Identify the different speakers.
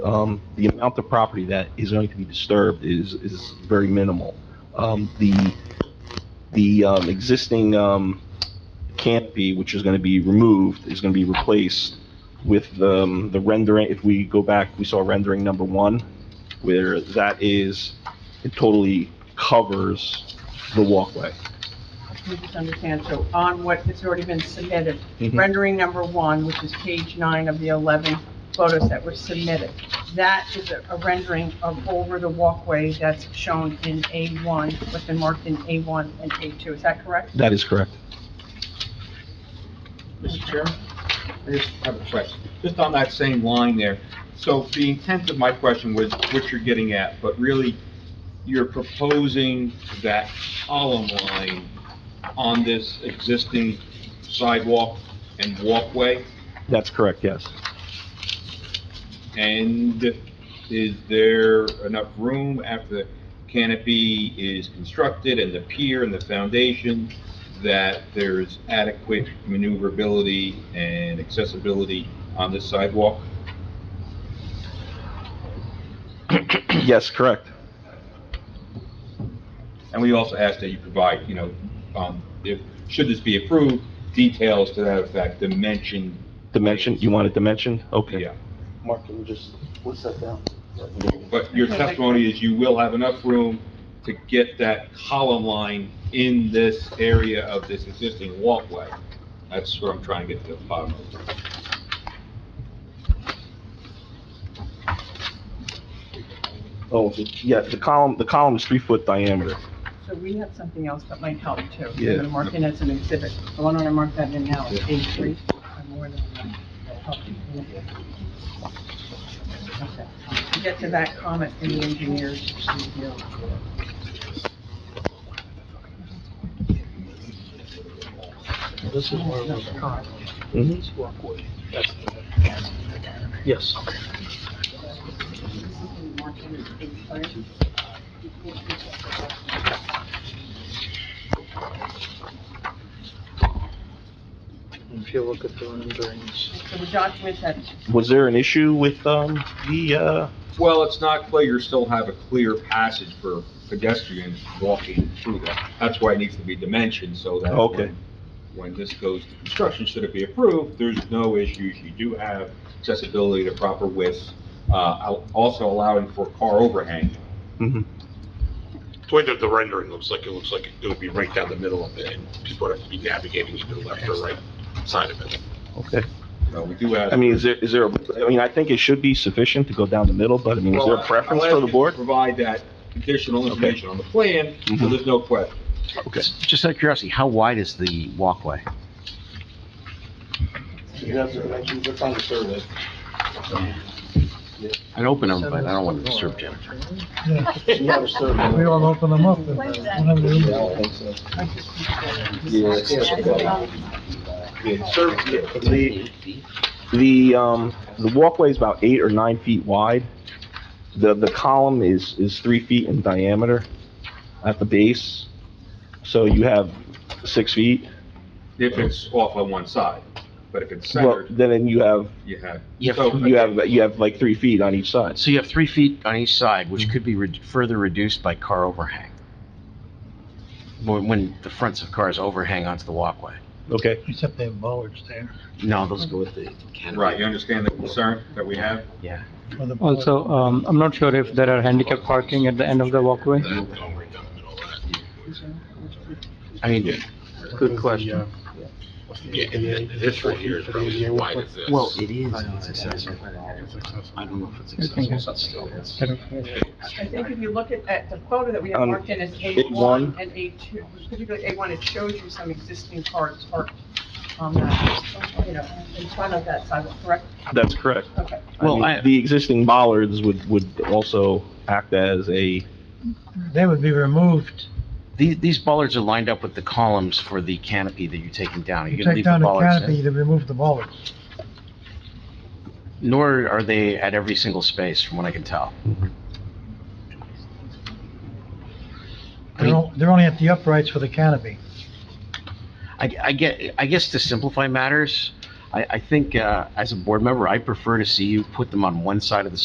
Speaker 1: um, the amount of property that is going to be disturbed is, is very minimal. Um, the, the, um, existing, um, canopy, which is gonna be removed, is gonna be replaced with, um, the rendering, if we go back, we saw rendering number one, where that is, it totally covers the walkway.
Speaker 2: We just understand, so on what has already been submitted,
Speaker 1: Mm-hmm.
Speaker 2: rendering number one, which is page nine of the 11 photos that were submitted, that is a a rendering of over the walkway that's shown in A1, what's been marked in A1 and A2, is that correct?
Speaker 1: That is correct.
Speaker 3: Mr. Chairman, I just have a question. Just on that same line there, so the intent of my question was what you're getting at, but really, you're proposing that column line on this existing sidewalk and walkway,
Speaker 1: That's correct, yes.
Speaker 3: and is there enough room after the canopy is constructed and the pier and the foundation that there's adequate maneuverability and accessibility on this sidewalk?
Speaker 1: Yes, correct.
Speaker 3: And we also ask that you provide, you know, um, if, should this be approved, details to that effect, dimension.
Speaker 1: Dimension, you want it dimensioned? Okay.
Speaker 3: Yeah,
Speaker 4: Mark, can you just, what's that down?
Speaker 3: but your testimony is you will have enough room to get that column line in this area of this existing walkway. That's where I'm trying to get to the bottom of it.
Speaker 1: Oh, yeah, the column, the column is three foot diameter.
Speaker 2: So we have something else that might help too.
Speaker 1: Yeah.
Speaker 2: We're gonna mark it as an exhibit. So why don't I mark that in now, it's A3? I'm more than enough. That'll help you. Okay. We'll Get to that comment in the engineer's review.
Speaker 4: This is where we're going.
Speaker 1: Mhm.
Speaker 5: Mm-hmm.
Speaker 4: This walkway. That's the- Yes. And If you look at the renderings,
Speaker 2: So we document that
Speaker 1: Was there an issue with, um, the, uh,
Speaker 3: Well, it's not clear, you still have a clear passage for pedestrians walking through that. That's why it needs to be dimensioned, so that
Speaker 1: Okay.
Speaker 3: when- when this goes to construction, should it be approved, there's no issues. You do have accessibility to proper widths, uh, al- also allowing for car overhang.
Speaker 1: mhm.
Speaker 6: The way that the rendering looks like, it looks like it would be right down the middle of it, and people would have to be navigating either left or right side of it.
Speaker 1: okay.
Speaker 3: So Uh, we do have.
Speaker 1: I mean, is there, is there, a- I mean, I think it should be sufficient to go down the middle, but I mean, is there
Speaker 3: Well,
Speaker 1: a
Speaker 3: I-
Speaker 1: preference
Speaker 3: I'll
Speaker 1: for
Speaker 3: ask
Speaker 1: the
Speaker 3: you to
Speaker 1: board?
Speaker 3: Provide that additional information on the plan, so
Speaker 1: Mhm.
Speaker 3: there's no question.
Speaker 1: Okay.
Speaker 7: Just out of curiosity, how wide is the walkway?
Speaker 4: you have the dimensions, that's on the survey.
Speaker 7: I'd open them, but I don't want to disturb Jim.
Speaker 4: You have a survey.
Speaker 5: We all open them up and whenever we-
Speaker 1: Sir, the, the, um, the walkway is about eight or nine feet wide. The, the column is, is three feet in diameter at the base. So you have six feet.
Speaker 3: If it's off on one side, but if it's
Speaker 1: Well,
Speaker 3: centered,
Speaker 1: then you have,
Speaker 3: you have.
Speaker 7: You have-
Speaker 3: So-
Speaker 1: you have, you have like three feet on each side.
Speaker 7: So you have three feet on each side, which could be re- further reduced by car overhang. When, when the fronts of cars overhang onto the walkway.
Speaker 1: Okay.
Speaker 5: except they have bollards there.
Speaker 7: No, those go with the canopy.
Speaker 3: Right, you understand the concern that we have?
Speaker 7: Yeah.
Speaker 5: for the-
Speaker 8: Also, um, I'm not sure if there are handicap parking at the end of the walkway.
Speaker 6: That, going right down the middle of that.
Speaker 7: I mean,
Speaker 8: Good question.
Speaker 6: Yeah, and then this right here is probably as wide as this.
Speaker 7: well, it is accessible. I don't know if it's accessible, but still. it's-
Speaker 2: I think if you look at, at the photo that we have
Speaker 1: Um,
Speaker 2: marked in as
Speaker 1: A1.
Speaker 2: A1 and A2, particularly A1, it shows you some existing cars parked on that, you know, in front of that sidewalk, correct?
Speaker 1: That's correct.
Speaker 2: Okay.
Speaker 1: I
Speaker 7: Well,
Speaker 1: mean,
Speaker 7: I-
Speaker 1: The existing bollards would, would also act as a,
Speaker 5: They would be removed.
Speaker 7: These, these bollards are lined up with the columns for the canopy that you're taking down. Are you
Speaker 5: You
Speaker 7: gonna
Speaker 5: take
Speaker 7: leave the
Speaker 5: down the
Speaker 7: bollards
Speaker 5: canopy,
Speaker 7: in?
Speaker 5: they remove the bollards.
Speaker 7: Nor are they at every single space, from what I can tell. I
Speaker 5: They're,
Speaker 7: mean-
Speaker 5: on- they're only at the uprights for the canopy.
Speaker 7: I, I get, I guess to simplify matters, I, I think, uh, as a board member, I prefer to see you put them on one side of the